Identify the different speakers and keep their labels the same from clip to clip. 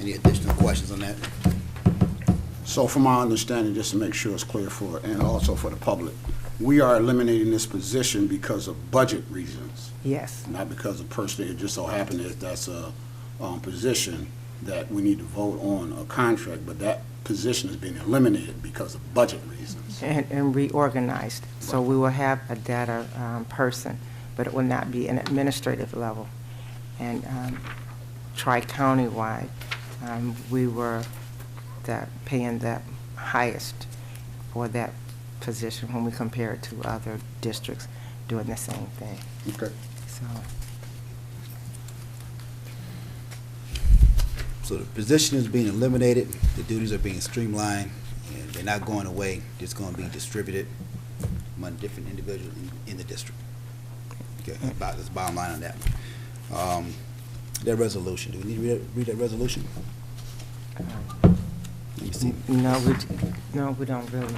Speaker 1: Any additional questions on that?
Speaker 2: So from my understanding, just to make sure it's clear for, and also for the public, we are eliminating this position because of budget reasons,
Speaker 3: Yes,
Speaker 2: not because of personally, it just so happened that that's a, um, position that we need to vote on a contract, but that position is being eliminated because of budget reasons.
Speaker 3: and, and reorganized. So we will have a data um, person, but it will not be an administrative level. And um, tri-countywide, um, we were the, paying the highest for that position when we compare it to other districts doing the same thing.
Speaker 2: Okay.
Speaker 3: So,
Speaker 1: So the position is being eliminated, the duties are being streamlined, and they're not going away, it's gonna be distributed among different individuals in, in the district. Okay,
Speaker 4: Mm.
Speaker 1: about, that's bottom line on that. Um, that resolution, do we need to read, read that resolution?
Speaker 3: um,
Speaker 1: Let me
Speaker 4: Mm.
Speaker 1: see.
Speaker 3: no, we, no, we don't really,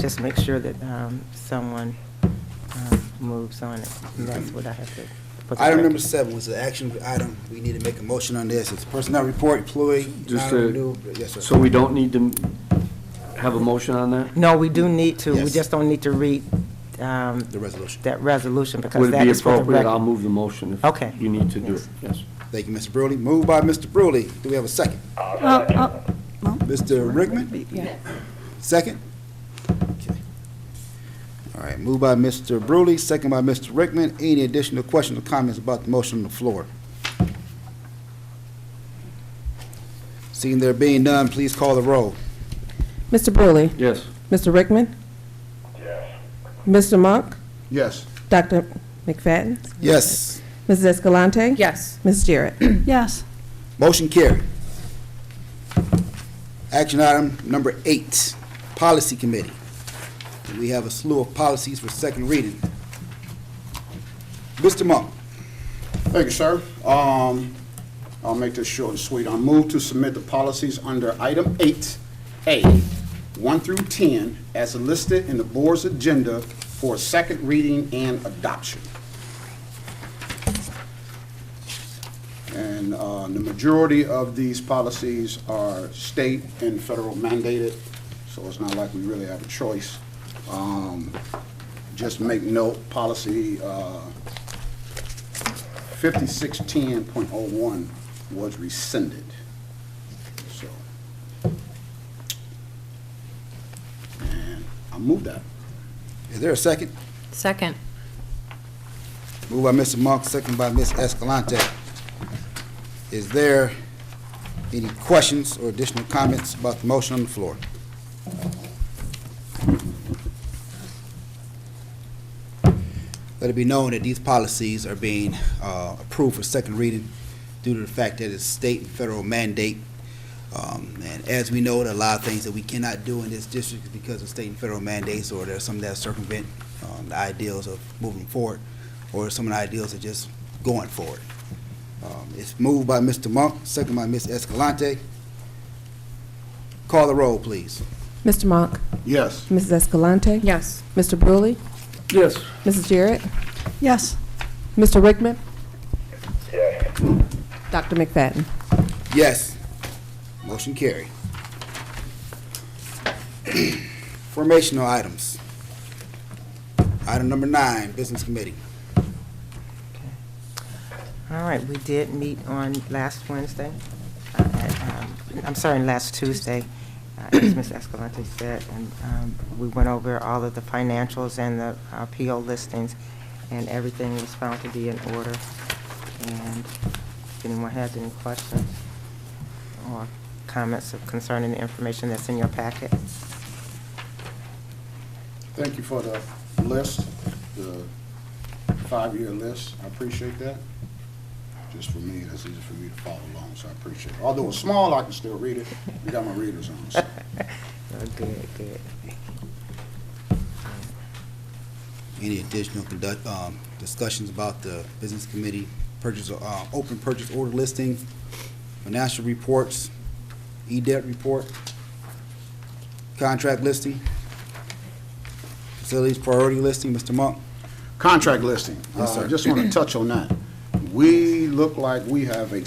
Speaker 3: just make sure that um, someone um, moves on it. That's what I have to. put the
Speaker 1: Item
Speaker 3: record.
Speaker 1: number seven was the action item, we need to make a motion on this, it's personnel report, employee,
Speaker 4: Just, uh,
Speaker 1: non-renewal, yes, sir.
Speaker 4: So we don't need to have a motion on that?
Speaker 3: No, we do need to, we
Speaker 1: Yes.
Speaker 3: just don't need to read um,
Speaker 1: The resolution.
Speaker 3: that resolution because
Speaker 4: Would it
Speaker 3: that
Speaker 4: be
Speaker 3: is for the
Speaker 4: appropriate? I'll
Speaker 3: record.
Speaker 4: move the motion if
Speaker 3: Okay.
Speaker 4: you need to do it. Yes.
Speaker 1: Thank you, Mr. Brewley. Moved by Mr. Brewley. Do we have a second?
Speaker 5: Oh,
Speaker 1: Mr. Rickman? Second? Okay. All right, moved by Mr. Brewley, second by Mr. Rickman. Any additional questions or comments about the motion on the floor? Seeing there being none, please call the roll.
Speaker 6: Mr. Brewley,
Speaker 4: Yes.
Speaker 6: Mr. Rickman,
Speaker 7: Yes.
Speaker 6: Mr. Monk,
Speaker 2: Yes.
Speaker 6: Dr. McFadden,
Speaker 1: Yes,
Speaker 6: Mrs. Escalante.
Speaker 5: Yes.
Speaker 6: Ms. Jarrett.
Speaker 5: Yes.
Speaker 1: motion carried. Action item number eight, Policy Committee. We have a slew of policies for second reading. Mr. Monk.
Speaker 2: Thank you, sir. Um, I'll make this short and sweet. I move to submit the policies under item eight, A, one through ten, as listed in the board's agenda for second reading and adoption. And, uh, the majority of these policies are state and federal mandated, so it's not like we really have a choice. Um, just make note, policy, uh, 5610.01 was rescinded, so. And I move that.
Speaker 1: Is there a second?
Speaker 5: Second.
Speaker 1: Moved by Mr. Monk, second by Ms. Escalante. Is there any questions or additional comments about the motion on the floor? Let it be known that these policies are being uh, approved for second reading due to the fact that it's state and federal mandate. Um, And as we know, there are a lot of things that we cannot do in this district because of state and federal mandates, or there are some that circumvent um, the ideals of moving forward, or some of the ideals of just going forward. Um, It's moved by Mr. Monk, second by Ms. Escalante. Call the roll, please.
Speaker 6: Mr. Monk,
Speaker 2: Yes.
Speaker 6: Mrs. Escalante.
Speaker 5: Yes.
Speaker 6: Mr. Brewley,
Speaker 4: Yes.
Speaker 6: Mrs. Jarrett,
Speaker 5: Yes.
Speaker 6: Mr. Rickman,
Speaker 7: Yes.
Speaker 6: Dr. McFadden.
Speaker 1: Yes. Motion carried. Formational items. Item number nine, Business Committee.
Speaker 3: All right, we did meet on last Wednesday. uh, at, um, I'm sorry, last Tuesday, uh, as Ms. Escalante said, and um, we went over all of the financials and the uh, PO listings, and everything was found to be in order. And if anyone has any questions or comments concerning the information that's in your packet,
Speaker 2: Thank you for the list, the five-year list. I appreciate that. Just for me, that's easy for me to follow along, so I appreciate it. Although it's small, I can still read it. We got my readers on, so.
Speaker 3: Oh, good, good.
Speaker 1: Any additional conduct, um, discussions about the Business Committee purchase, uh, open purchase order listing, financial reports, E-debt report, contract listing, facilities priority listing, Mr. Monk?
Speaker 2: Contract listing.
Speaker 1: Yes,
Speaker 2: Uh,
Speaker 1: sir.
Speaker 2: Just want to touch on that. We look like we have a